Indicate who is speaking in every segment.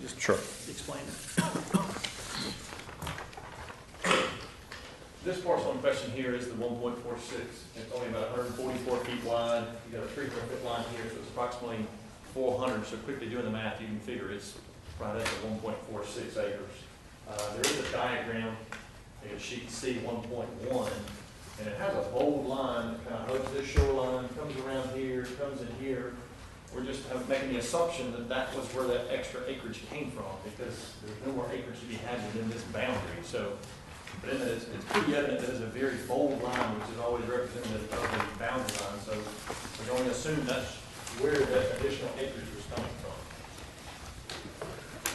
Speaker 1: just
Speaker 2: Sure.
Speaker 1: explain it.
Speaker 3: This parcel in question here is the one point four six, it's only about hundred and forty-four feet wide, you got a three foot line here, so it's approximately four hundred, so quickly doing the math, you can figure it's right up to one point four six acres. Uh, there is a diagram, in sheet C one point one, and it has a bold line that kind of hugs this shoreline, comes around here, comes in here. We're just uh, making the assumption that that was where that extra acreage came from, because there's no more acreage to be had within this boundary, so but in it's, it's pretty evident that it's a very bold line, which is always representative of the boundary line, so we're going to assume that's where that additional acreage was coming from.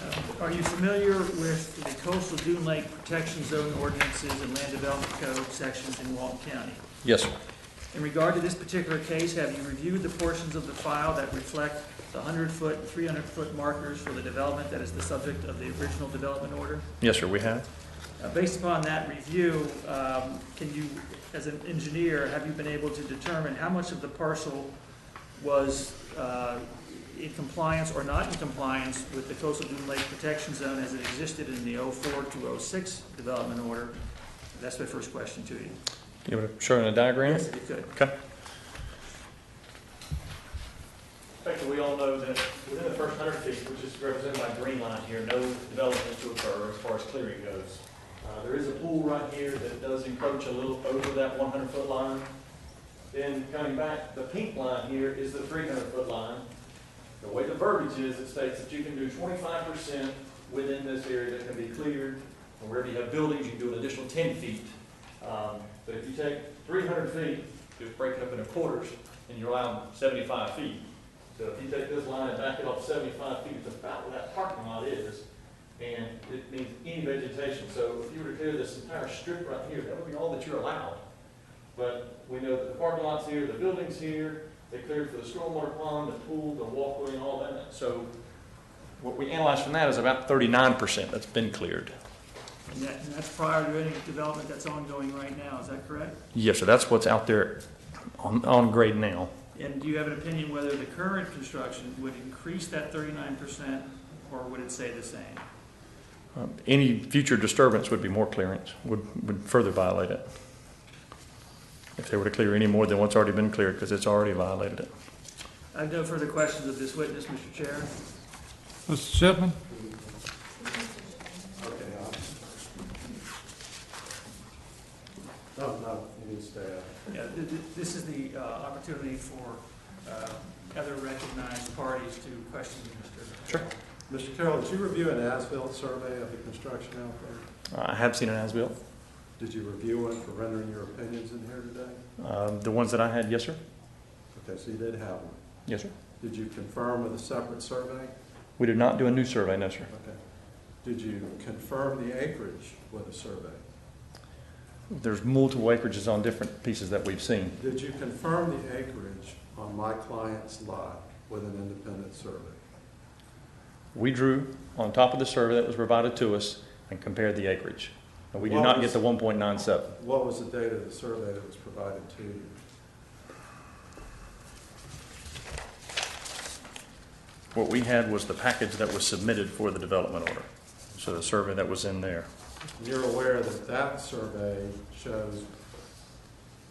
Speaker 1: Uh, Are you familiar with the coastal dune lake protection zone ordinances and land development code sections in Walton County?
Speaker 2: Yes, sir.
Speaker 1: In regard to this particular case, have you reviewed the portions of the file that reflect the 100-foot, 300-foot markers for the development that is the subject of the original development order?
Speaker 2: Yes, sir, we have.
Speaker 1: Uh, Based upon that review, um, can you, as an engineer, have you been able to determine how much of the parcel was uh, in compliance or not in compliance with the coastal dune lake protection zone as it existed in the 04 to 06 development order? That's my first question to you.
Speaker 2: You want to show in a diagram?
Speaker 1: Yes, if you could.
Speaker 2: Okay.
Speaker 3: Effectively, we all know that within the first hundred feet, which is represented by green line here, no development is to occur as far as clearing goes. Uh, there is a pool right here that does encroach a little over that one hundred foot line. Then coming back, the pink line here is the three hundred foot line. The way the verbiage is, it states that you can do twenty-five percent within this area that can be cleared. And wherever you have buildings, you can do an additional ten feet. Um, but if you take three hundred feet, just break it up into quarters, and you're allowed seventy-five feet. So if you take this line and back it off seventy-five feet, it's about where that parking lot is, and it means any vegetation. So if you were to clear this entire strip right here, that would be all that you're allowed. But we know that the parking lot's here, the building's here, they cleared for the stormwater pond, the pool, the walkway, and all that. So what we analyzed from that is about thirty-nine percent that's been cleared.
Speaker 1: And that- and that's prior to any development that's ongoing right now, is that correct?
Speaker 2: Yes, sir, that's what's out there on, on grade now.
Speaker 1: And do you have an opinion whether the current construction would increase that 39% or would it stay the same?
Speaker 2: Um, Any future disturbance would be more clearance, would, would further violate it. If they were to clear any more than what's already been cleared, because it's already violated it.
Speaker 1: I have no further questions of this witness, Mr. Chair.
Speaker 4: Mr. Chipman?
Speaker 5: uh, No, no, it needs to, uh,
Speaker 1: Yeah, th- th- This is the uh, opportunity for uh, other recognized parties to question Mr.
Speaker 2: Sure.
Speaker 5: Mr. Carroll, did you review an as-built survey of the construction out there?
Speaker 2: I have seen an as-built.
Speaker 5: Did you review it for rendering your opinions in here today?
Speaker 2: Um, The ones that I had, yes, sir?
Speaker 5: Okay, so you did have one.
Speaker 2: Yes, sir.
Speaker 5: Did you confirm with a separate survey?
Speaker 2: We did not do a new survey, no, sir.
Speaker 5: Okay. Did you confirm the acreage with a survey?
Speaker 2: There's multiple acreages on different pieces that we've seen.
Speaker 5: Did you confirm the acreage on my client's lot with an independent survey?
Speaker 2: We drew on top of the survey that was provided to us and compared the acreage. And we did not get the one point nine seven.
Speaker 5: What was the date of the survey that was provided to you?
Speaker 2: What we had was the package that was submitted for the development order. So the survey that was in there.
Speaker 5: You're aware that that survey shows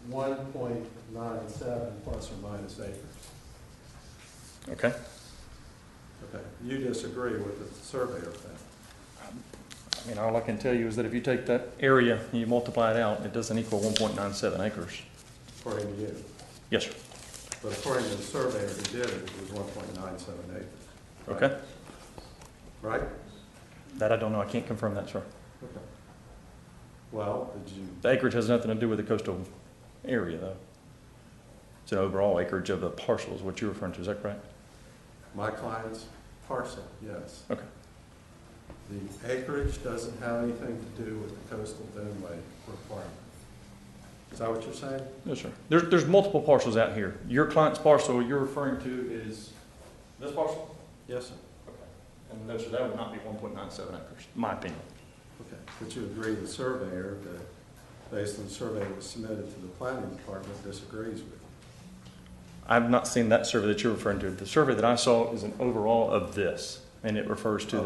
Speaker 5: one point nine seven plus or minus acres.
Speaker 2: Okay?
Speaker 5: Okay, you disagree with the surveyor then?
Speaker 2: I mean, all I can tell you is that if you take that area and you multiply it out, it doesn't equal one point nine seven acres.
Speaker 5: according to you.
Speaker 2: Yes, sir.
Speaker 5: But according to the surveyor who did it, it was one point nine seven acres. right?
Speaker 2: Okay?
Speaker 5: Right?
Speaker 2: That I don't know. I can't confirm that, sir.
Speaker 5: Okay. Well, did you,
Speaker 2: The acreage has nothing to do with the coastal area, though. It's an overall acreage of the parcel is what you're referring to. Is that correct?
Speaker 5: my client's parcel, yes.
Speaker 2: Okay.
Speaker 5: The acreage doesn't have anything to do with the coastal dune lake requirement. Is that what you're saying?
Speaker 2: Yes, sir. There's, there's multiple parcels out here. Your client's parcel you're referring to is this parcel?
Speaker 5: Yes, sir.
Speaker 2: And no, sir, that would not be one point nine seven acres. My opinion.
Speaker 5: Okay, but you agree the surveyor, that based on the survey that was submitted to the planning department, disagrees with you?
Speaker 2: I've not seen that survey that you're referring to. The survey that I saw is an overall of this, and it refers to the